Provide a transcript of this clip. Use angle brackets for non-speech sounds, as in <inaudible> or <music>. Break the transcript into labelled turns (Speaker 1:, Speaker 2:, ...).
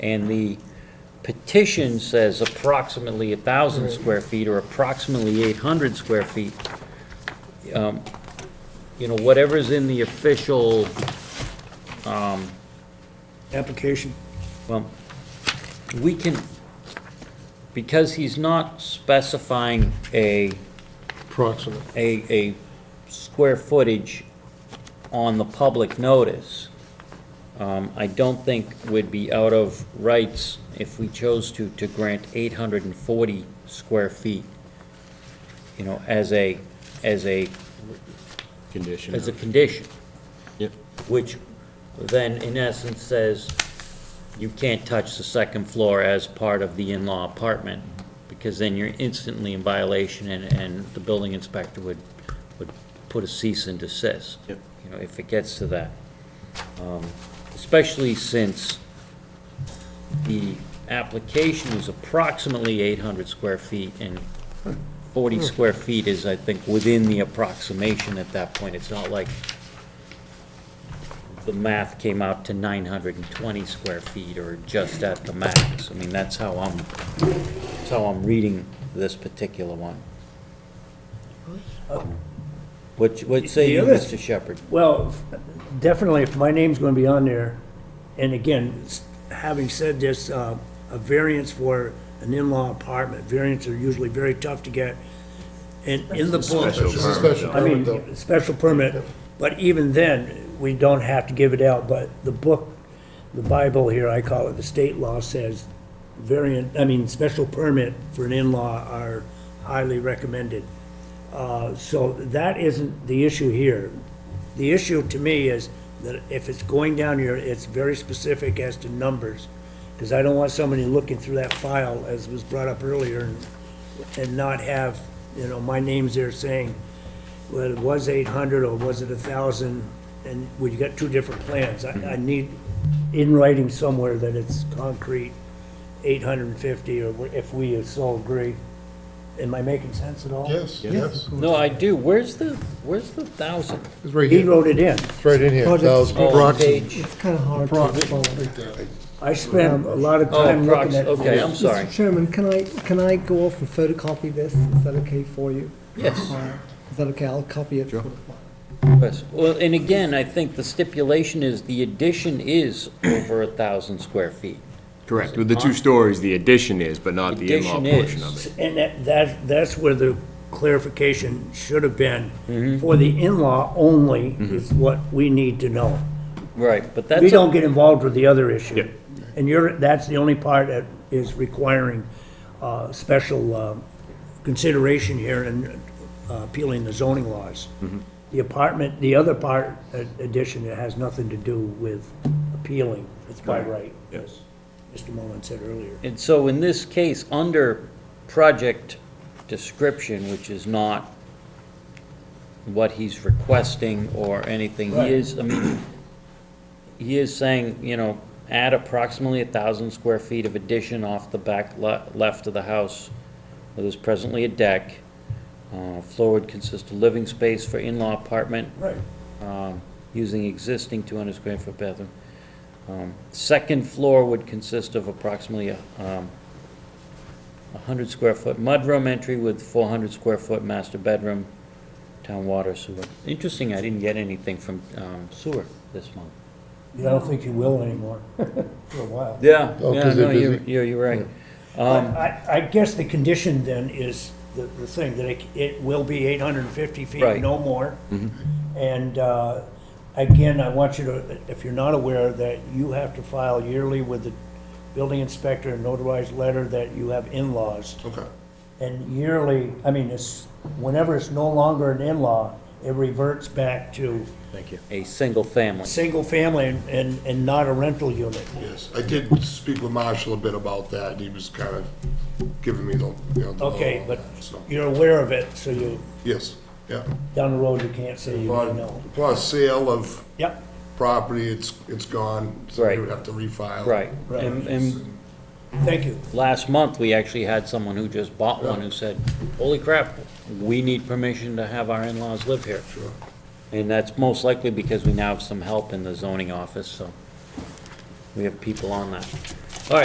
Speaker 1: and the petition says approximately 1,000 square feet or approximately 800 square feet, um, you know, whatever's in the official,
Speaker 2: application.
Speaker 1: well, we can, because he's not specifying a
Speaker 3: approximate.
Speaker 1: a, a square footage on the public notice, um, I don't think would be out of rights if we chose to, to grant eight hundred and forty square feet, you know, as a, as a,
Speaker 4: Condition.
Speaker 1: as a condition,
Speaker 4: Yep.
Speaker 1: which then in essence says you can't touch the second floor as part of the in-law apartment, because then you're instantly in violation and, and the building inspector would, would put a cease and desist.
Speaker 4: Yep.
Speaker 1: You know, if it gets to that. Um, Especially since the application is approximately eight hundred square feet and forty
Speaker 2: Hmm.
Speaker 1: square feet is, I think, within the approximation at that point. It's not like the math came out to 920 square feet or just at the max. I mean, that's how I'm, that's how I'm reading this particular one. What, what say you,
Speaker 2: The other-
Speaker 1: Mr. Shepherd?
Speaker 2: Well, definitely, if my name's going to be on there, and again, s- having said this, uh, a variance for an in-law apartment, variants are usually very tough to get. And in the
Speaker 3: It's a
Speaker 2: book,
Speaker 3: special
Speaker 2: I
Speaker 3: permit, though.
Speaker 2: mean, special permit, but even then, we don't have to give it out, but the book, the Bible here, I call it, the state law says variant, I mean, special permit for an in-law are highly recommended. Uh, So that isn't the issue here. The issue to me is that if it's going down here, it's very specific as to numbers, because I don't want somebody looking through that file, as was brought up earlier, and- and not have, you know, my name's there saying, well, it was eight hundred, or was it a thousand, and, well, you got two different plans. I, I need in writing somewhere that it's concrete, eight hundred and fifty, or wh- if we so agree. Am I making sense at all?
Speaker 3: Yes, yes.
Speaker 1: No, I do. Where's the, where's the thousand?
Speaker 3: It's right
Speaker 2: He
Speaker 3: here,
Speaker 2: wrote it in.
Speaker 3: it's right in here,
Speaker 5: Project-
Speaker 3: thousand
Speaker 1: Oh,
Speaker 3: approximate.
Speaker 1: page-
Speaker 5: It's kind of hard to follow.
Speaker 2: I spent a lot of
Speaker 1: Oh,
Speaker 2: time looking
Speaker 1: prox-
Speaker 2: at.
Speaker 1: okay, I'm sorry.
Speaker 5: Mr. Chairman, can I, can I go off and photocopy this? Is that okay for you?
Speaker 1: Yes.
Speaker 5: Uh, Is that okay? I'll copy it. for the file.
Speaker 1: Yes. Well, and again, I think the stipulation is the addition is over a thousand square feet.
Speaker 4: Correct. With the two stories, the addition is, but not the in-law
Speaker 1: Addition
Speaker 4: portion
Speaker 1: is.
Speaker 4: of it.
Speaker 2: And that, that, that's where the clarification should have been. For the in-law only is what we need to know.
Speaker 1: Right, but that's.
Speaker 2: We
Speaker 1: a-
Speaker 2: don't get involved with the other issue.
Speaker 4: Yeah.
Speaker 2: And you're, that's the only part that is requiring, uh, special, uh, consideration here and uh, appealing the zoning laws. The apartment, the other part, uh, addition, it has nothing to do with appealing, it's by right, as Mr. Mullin said earlier.
Speaker 1: And so in this case, under project description, which is not what he's requesting or anything, he
Speaker 2: Right.
Speaker 1: is, I mean, he is saying, you know, add approximately a thousand square feet of addition off the back le- left of the house. There is presently a deck. Uh, floor would consist of living space for in-law apartment,
Speaker 2: Right.
Speaker 1: um, using existing 200 square foot bathroom. Um, Second floor would consist of approximately um, 100 square foot mudroom entry with 400 square foot master bedroom, town water sewer. Interesting, I didn't get anything from um, sewer this month.
Speaker 2: I don't think you will anymore, <laughs> for a while.
Speaker 1: Yeah.
Speaker 3: Oh,
Speaker 1: Yeah,
Speaker 3: 'cause they're
Speaker 1: no, you're,
Speaker 3: busy.
Speaker 1: you're you're right. Um,
Speaker 2: But I, I guess the condition then is the, the thing, that it, it will be eight hundred and fifty feet,
Speaker 1: Right. Mm-hmm.
Speaker 2: no more. And, uh, again, I want you to, if you're not aware, that you have to file yearly with the building inspector a notarized letter that you have in-laws.
Speaker 3: Okay.
Speaker 2: And yearly, I mean, it's, whenever it's no longer an in-law, it reverts back to
Speaker 1: A single family.
Speaker 2: single family and- and, and not a rental unit.
Speaker 3: Yes, I did speak with Marshall a bit about that, and he was kind of giving me the, you know. the low
Speaker 2: Okay,
Speaker 3: on
Speaker 2: but
Speaker 3: that, so,
Speaker 2: you're aware of it, so you,
Speaker 3: Yes, yeah.
Speaker 2: down the road, you can't say you didn't know.
Speaker 3: Upon upon sale of
Speaker 2: Yep.
Speaker 3: property, it's, it's gone, so
Speaker 1: Right.
Speaker 3: you would have to refile.
Speaker 1: Right.
Speaker 2: Right.
Speaker 1: And, and
Speaker 2: Thank you.
Speaker 1: last month, we actually had someone who just bought one who said, holy crap, we need permission to have our in-laws live here.
Speaker 3: Sure.
Speaker 1: And that's most likely because we now have some help in the zoning office, so we have people on that.